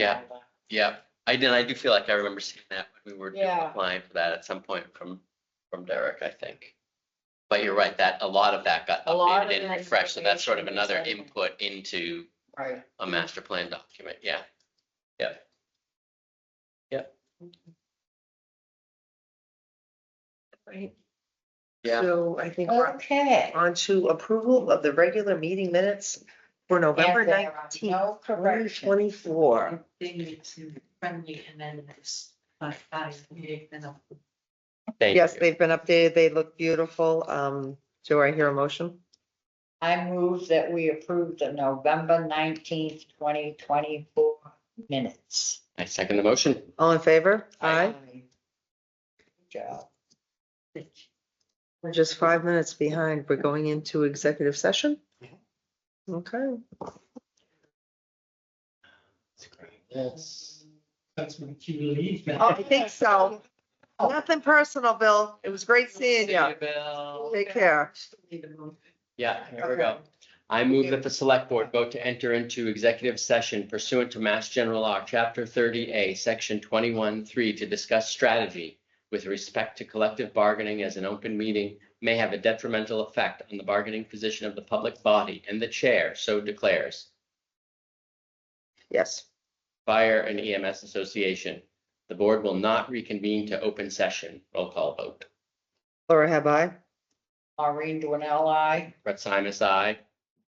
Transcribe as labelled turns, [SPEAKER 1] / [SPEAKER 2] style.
[SPEAKER 1] Yeah. Yeah, I did, I do feel like I remember seeing that when we were doing-
[SPEAKER 2] Yeah.
[SPEAKER 1] applying for that at some point from, from Derek, I think. But you're right, that, a lot of that got
[SPEAKER 2] A lot of
[SPEAKER 1] updated and
[SPEAKER 2] that
[SPEAKER 1] refreshed, so that's sort of
[SPEAKER 2] information is
[SPEAKER 1] another
[SPEAKER 2] in there.
[SPEAKER 1] input into
[SPEAKER 2] Right.
[SPEAKER 1] a master plan document, yeah.
[SPEAKER 3] Right.
[SPEAKER 1] Yeah.
[SPEAKER 3] So I think we're
[SPEAKER 2] Okay.
[SPEAKER 3] on to approval of the regular meeting minutes for November
[SPEAKER 2] And there are
[SPEAKER 3] nineteenth,
[SPEAKER 2] No
[SPEAKER 3] twenty
[SPEAKER 2] correction.
[SPEAKER 3] twenty-four.
[SPEAKER 4] They need to friendly amendments, but I need them.
[SPEAKER 1] Thank
[SPEAKER 3] Yes,
[SPEAKER 1] you.
[SPEAKER 3] they've been updated. They look beautiful. Um, do I hear a motion?
[SPEAKER 2] I move that we approve the November nineteenth, twenty twenty-four minutes.
[SPEAKER 1] I second the motion.
[SPEAKER 3] All in favor? Aye.
[SPEAKER 2] Good Job.
[SPEAKER 3] We're just five minutes behind. We're going into executive session? Okay.
[SPEAKER 4] Yes. That's my key relief.
[SPEAKER 3] Oh, I think so. Oh. Nothing personal, Bill. It was great seeing you. Take care.
[SPEAKER 1] Yeah, here we go. I move that the select board vote to enter into executive session pursuant to Mass General Law, Chapter thirty A, Section twenty-one, three, to discuss strategy with respect to collective bargaining as an open meeting may have a detrimental effect on the bargaining position of the public body, and the chair so declares.
[SPEAKER 3] Yes.
[SPEAKER 1] Fire and EMS Association. The board will not reconvene to open session. Roll call vote.
[SPEAKER 3] Laura, have I?
[SPEAKER 2] Maureen Dwinell, I.
[SPEAKER 1] Brett Simas, aye.